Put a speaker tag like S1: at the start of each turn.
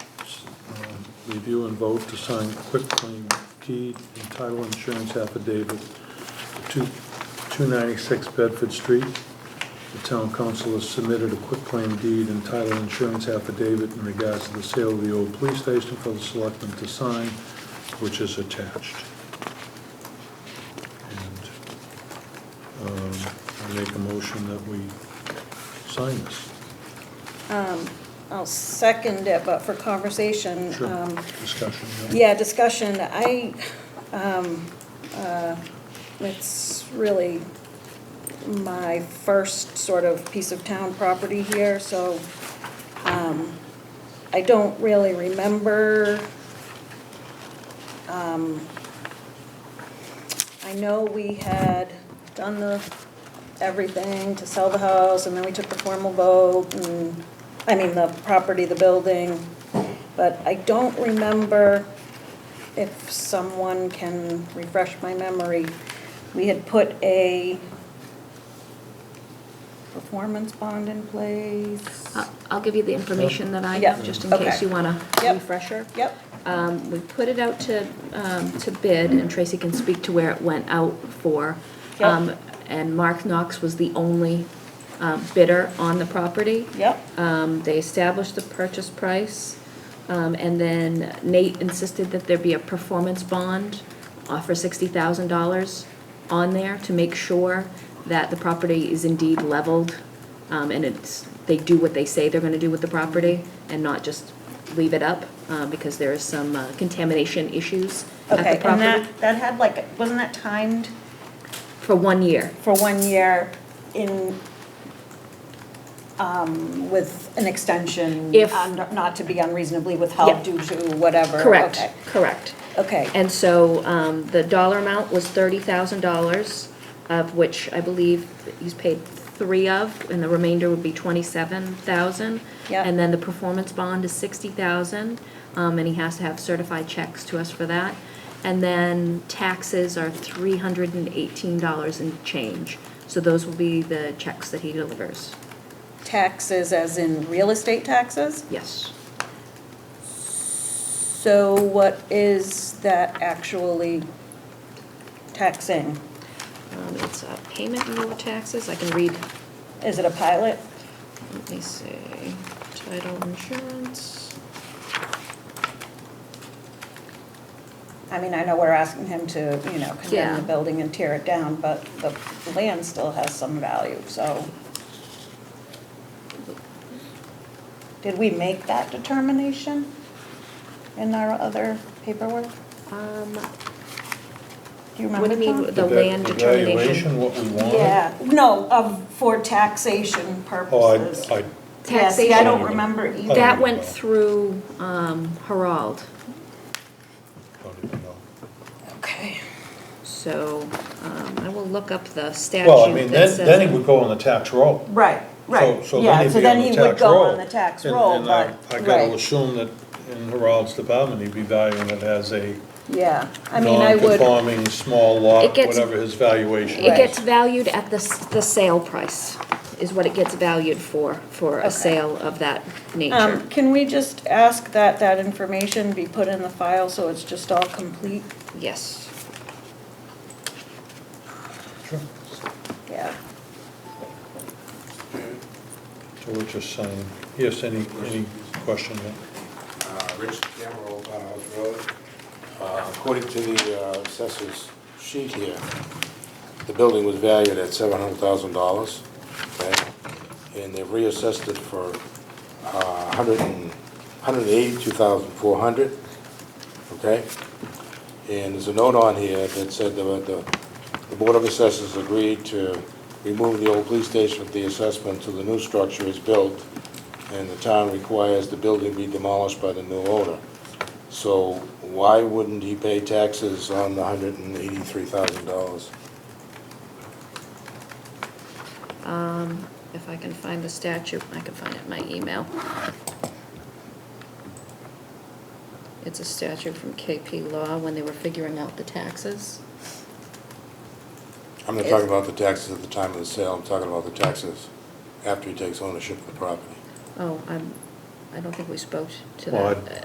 S1: review and vote to sign quick claim deed and title insurance affidavit to 296 Bedford Street. The town council has submitted a quick claim deed and title insurance affidavit in regards to the sale of the old police station for the selectmen to sign, which is attached. And um, I make a motion that we sign this.
S2: Um, I'll second it, but for conversation,
S1: Sure,
S2: um,
S1: discussion.
S2: yeah, discussion, I, um, uh, it's really my first sort of piece of town property here, so um, I don't really remember. um, I know we had done the, everything to sell the house, and then we took the formal vote, and, I mean, the property, the building, but I don't remember if someone can refresh my memory. We had put a performance bond in place.
S3: I'll- I'll give you the information that I
S2: Yeah,
S3: have, just in
S2: okay.
S3: case you want a
S2: Yep.
S3: refresher.
S2: Yep,
S3: Um, We put it out to, um, to bid, and Tracy can speak to where it went out for.
S2: Yep.
S3: Um, And Mark Knox was the only um, bidder on the property.
S2: yep,
S3: Um, They established the purchase price, um, and then Nate insisted that there be a performance bond uh, for $60,000 on there to make sure that the property is indeed leveled, um, and it's, they do what they say they're going to do with the property, and not just leave it up, uh, because there is some uh, contamination issues at
S2: okay,
S3: the
S2: and
S3: property.
S2: that, that had like, wasn't that timed
S3: For one year,
S2: for one year in, um, with an extension?
S3: If-
S2: un- Not to be unreasonably
S3: Yeah.
S2: withheld due to whatever?
S3: correct,
S2: okay,
S3: correct.
S2: Okay,
S3: And so um, the dollar amount was $30,000, of which I believe he's paid three of, and the remainder would be $27,000.
S2: Yeah.
S3: And then the performance bond is $60,000, um, and he has to have certified checks to us for that. And then taxes are $318 and change. So those will be the checks that he delivers.
S2: taxes as in real estate taxes?
S3: Yes.
S2: So what is that actually taxing?
S3: Um, It's a payment in lieu of taxes. I can read,
S2: Is it a pilot?
S3: let me see, title insurance.
S2: I mean, I know we're asking him to, you know, condemn
S3: Yeah.
S2: the building and tear it down, but the land still has some value, so. Did we make that determination in our other paperwork?
S3: Um,
S2: Do you
S3: What do
S2: remember,
S3: you mean with
S2: Tom?
S3: the land determination?
S1: Evaluation, what we want.
S2: Yeah, no, of, for taxation
S1: Oh,
S2: purposes.
S1: I, Uh, I,
S2: Yeah, see, I don't
S3: Taxation,
S2: remember
S1: Oh,
S2: either.
S3: that went through, um, Harald,
S1: don't even know.
S2: Okay.
S3: so, um, I will look up the
S1: Well, I
S3: statute
S1: mean,
S3: that
S1: then,
S3: says.
S1: then he would go on the tax roll.
S2: Right, right,
S1: So-
S2: yeah,
S1: he'd
S2: so
S1: be on
S2: then
S1: the
S2: he would
S1: tax
S2: go
S1: roll.
S2: on the tax
S1: And-
S2: roll,
S1: and I-
S2: but,
S1: I gotta
S2: right,
S1: assume that in Harald's department, he'd be valuing it as a
S2: yeah, I mean, I would,
S1: non-conforming, small lot,
S3: It gets-
S1: whatever his valuation
S3: It
S2: Right.
S1: is.
S3: gets valued at the, s- the sale price, is what it gets valued for, for
S2: Okay.
S3: a sale of that nature.
S2: um, can we just ask that that information be put in the file so it's just all complete?
S3: Yes,
S1: Sure.
S2: Yeah,
S1: So we're just saying, yes, any, any question?
S4: uh, Rich Cameron, Old House Road. Uh, According to the uh, assessor's sheet here, the building was valued at seven hundred thousand dollars, okay? And they've reassessed it for a hundred and, hundred and eighty-two thousand four hundred, okay? And there's a note on here that said that the, the Board of Assessors agreed to remove the old police station from the assessment till the new structure is built, and the town requires the building be demolished by the new owner. So why wouldn't he pay taxes on the hundred and eighty-three thousand dollars?
S3: um, if I can find the statute, I can find it in my email. It's a statute from KP Law when they were figuring out the taxes.
S4: I'm not talking about the taxes at the time of the sale, I'm talking about the taxes after he takes ownership of the property.
S3: Oh, I'm, I don't think we spoke to
S1: Well,
S3: that.